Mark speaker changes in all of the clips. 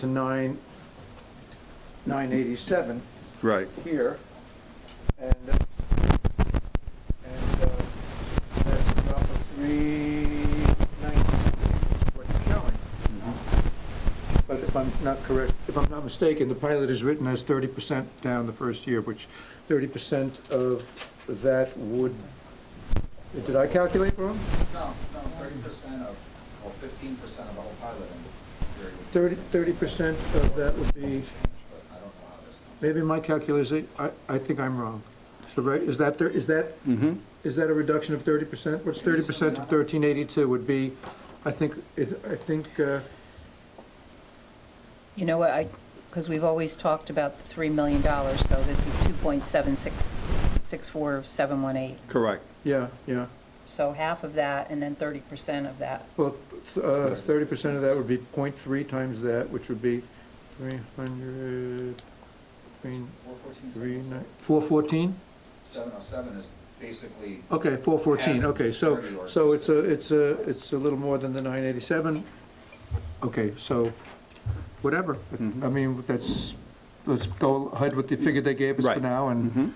Speaker 1: to nine, nine eighty-seven
Speaker 2: Right.
Speaker 1: here, and, and, uh, that's about a three ninety, what you're showing. But if I'm not correct, if I'm not mistaken, the pilot is written as thirty percent down the first year, which thirty percent of that would, did I calculate wrong?
Speaker 3: No, no, thirty percent of, or fifteen percent of the whole piloting period. would be
Speaker 1: Thirty,
Speaker 3: the same.
Speaker 1: thirty percent of that would be,
Speaker 3: Change, but I don't know how this comes.
Speaker 1: maybe my calculation, I, I think I'm wrong. So, right, is that, there- is that
Speaker 2: Mm-hmm.
Speaker 1: Is that a reduction of thirty percent? What's thirty percent of thirteen eighty-two would be, I think, it- I think, uh,
Speaker 4: You know what, I, because we've always talked about the $3 million, so this is 2.764718.
Speaker 2: Correct.
Speaker 1: yeah, yeah.
Speaker 4: So half of that and then 30% of that.
Speaker 1: Well, uh, thirty percent of that would be 0.3 times that, which would be three hundred,
Speaker 3: Four fourteen,
Speaker 1: three,
Speaker 3: seven oh
Speaker 1: nine,
Speaker 3: seven.
Speaker 1: four fourteen?
Speaker 3: Seven oh seven is basically,
Speaker 1: Okay, four fourteen,
Speaker 3: Yeah.
Speaker 1: okay, so,
Speaker 3: Thirty or-
Speaker 1: so it's a, it's a, it's a little more than the nine eighty-seven. Okay, so, whatever, I mean, that's, let's go ahead with the figure they gave us for
Speaker 2: Right.
Speaker 1: now,
Speaker 2: Mm-hmm.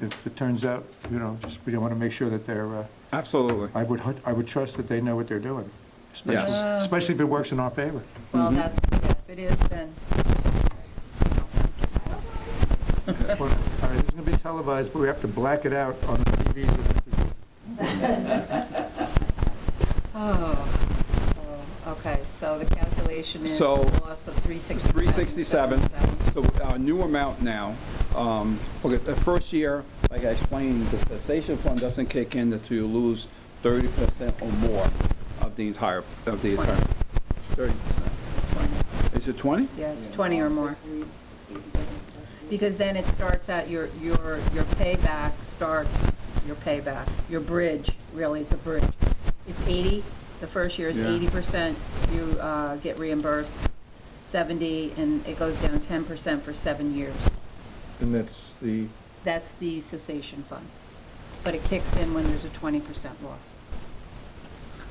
Speaker 1: and if it turns out, you know, just, we want to make sure that they're, uh,
Speaker 2: Absolutely.
Speaker 1: I would, hu- I would trust that they know what they're doing, especially,
Speaker 4: Yeah.
Speaker 1: especially if it works in our favor.
Speaker 4: Well, that's, if it is, then,
Speaker 1: Well, All right, it's gonna be televised, but we have to black it out on the TVs.
Speaker 4: oh, so, okay, so the calculation is a
Speaker 2: So-
Speaker 4: loss of 367.
Speaker 2: 367, so our new amount now, um, okay, the first year, like I explained, the cessation fund doesn't kick in until you lose 30% or more of the entire, of the entire. 30%. Is it 20?
Speaker 4: Yeah, it's 20 or more. Because then it starts at your, your, your payback starts, your payback, your bridge, really, it's a bridge. It's 80, the first year is
Speaker 2: Yeah.
Speaker 4: 80%, you uh, get reimbursed 70, and it goes down 10% for seven years.
Speaker 1: And that's the,
Speaker 4: That's the cessation fund. But it kicks in when there's a 20% loss.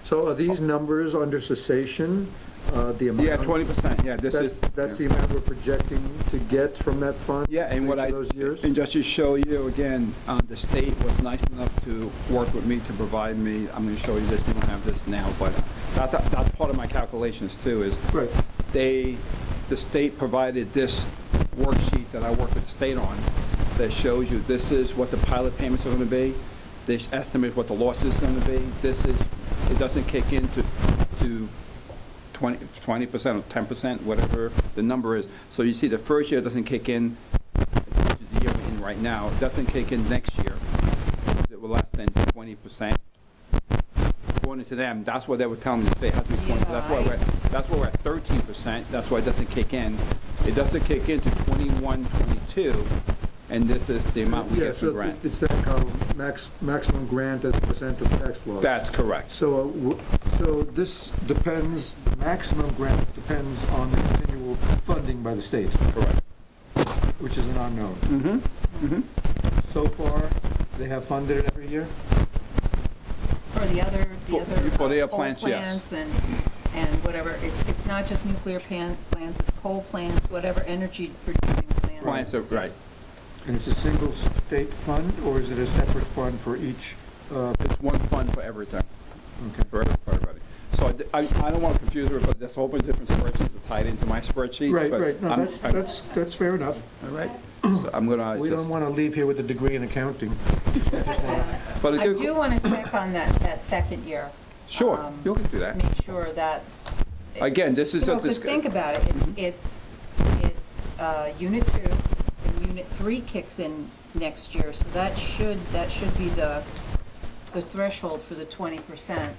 Speaker 1: so are these numbers under cessation, uh, the amount?
Speaker 2: Yeah, 20%, yeah, this
Speaker 1: That's,
Speaker 2: is.
Speaker 1: that's the
Speaker 2: yeah.
Speaker 1: amount we're projecting to get from that fund?
Speaker 2: Yeah, and
Speaker 1: for
Speaker 2: what
Speaker 1: each
Speaker 2: I,
Speaker 1: of those years?
Speaker 2: and just to show you again, uh, the state was nice enough to work with me to provide me, I'm going to show you this, you don't have this now, but that's, that's part of my calculations too, is
Speaker 1: Right,
Speaker 2: they, the state provided this worksheet that I work with the state on that shows you this is what the pilot payments are going to be, this estimate what the loss is going to be, this is, it doesn't kick in to, to 20, 20% or 10%, whatever the number is. So you see the first year doesn't kick in, which is the year we're in right now, it doesn't kick in next year. It was less than 20%. According to them, that's what they were telling me, they had to be 20, that's why we're, that's why we're at 13%, that's why it doesn't kick in. It doesn't kick in to 21, 22, and this is the amount we
Speaker 1: yeah,
Speaker 2: get from
Speaker 1: so
Speaker 2: grant.
Speaker 1: it's that column, max, maximum grant as a percent of tax law.
Speaker 2: That's correct.
Speaker 1: So, uh, w- so this depends, maximum grant depends on the continual funding by the state,
Speaker 2: Correct.
Speaker 1: which is an unknown.
Speaker 2: Mm-hmm.
Speaker 1: So far, they have funded it every year?
Speaker 4: For the other, the
Speaker 2: For-
Speaker 4: other.
Speaker 2: for the
Speaker 4: uh, coal
Speaker 2: plants, yes.
Speaker 4: Plants and, and whatever, it's, it's not just nuclear pan- plants, it's coal plants, whatever energy producing plants.
Speaker 2: Clients are, right.
Speaker 1: And it's a single state fund, or is it a separate fund for each? uh,
Speaker 2: It's one fund for everything,
Speaker 1: okay.
Speaker 2: for every- for everybody. So I d- I, I don't want to confuse everybody, there's a whole bunch of different spreadsheets that tied into my spreadsheet.
Speaker 1: Right,
Speaker 2: but
Speaker 1: right, no,
Speaker 2: I'm-
Speaker 1: that's,
Speaker 2: I'm-
Speaker 1: that's, that's fair enough.
Speaker 2: All right, so I'm going to
Speaker 1: We don't
Speaker 2: just,
Speaker 1: want to leave here with a degree in accounting.
Speaker 2: but
Speaker 4: I
Speaker 2: it
Speaker 4: do
Speaker 2: could,
Speaker 4: want to check on that, that second year.
Speaker 2: sure,
Speaker 4: um,
Speaker 2: you can do that.
Speaker 4: Make sure that's.
Speaker 2: Again, this is
Speaker 4: You
Speaker 2: a
Speaker 4: know, 'cause
Speaker 2: disc- Mm-hmm.
Speaker 4: think about it, it's, it's, it's uh, Unit 2, and Unit 3 kicks in next year, so that should, that should be the, the threshold for the 20%.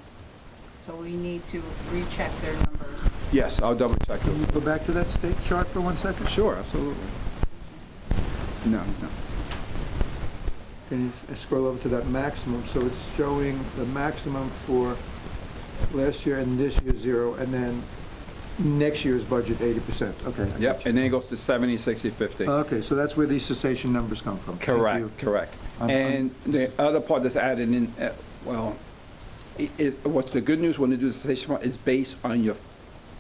Speaker 4: So we need to recheck their numbers.
Speaker 2: Yes, I'll double check
Speaker 1: Can you
Speaker 2: those.
Speaker 1: go back to that state chart for one second?
Speaker 2: Sure, absolutely. No, no.
Speaker 1: Can you scroll over to that maximum? So it's showing the maximum for last year and this year, zero, and then next year's budget, eighty percent. Okay. I got
Speaker 2: Yep,
Speaker 1: you.
Speaker 2: and then it goes to 70, 60, 50.
Speaker 1: Okay, so that's where these cessation numbers come from. Thank you.
Speaker 2: Correct, correct.
Speaker 1: I'm- I'm-
Speaker 2: And the other part that's added in, uh, well, i- i- what's the good news when you do the cessation fund is based on your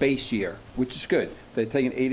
Speaker 2: base year, which is good. They're taking eighty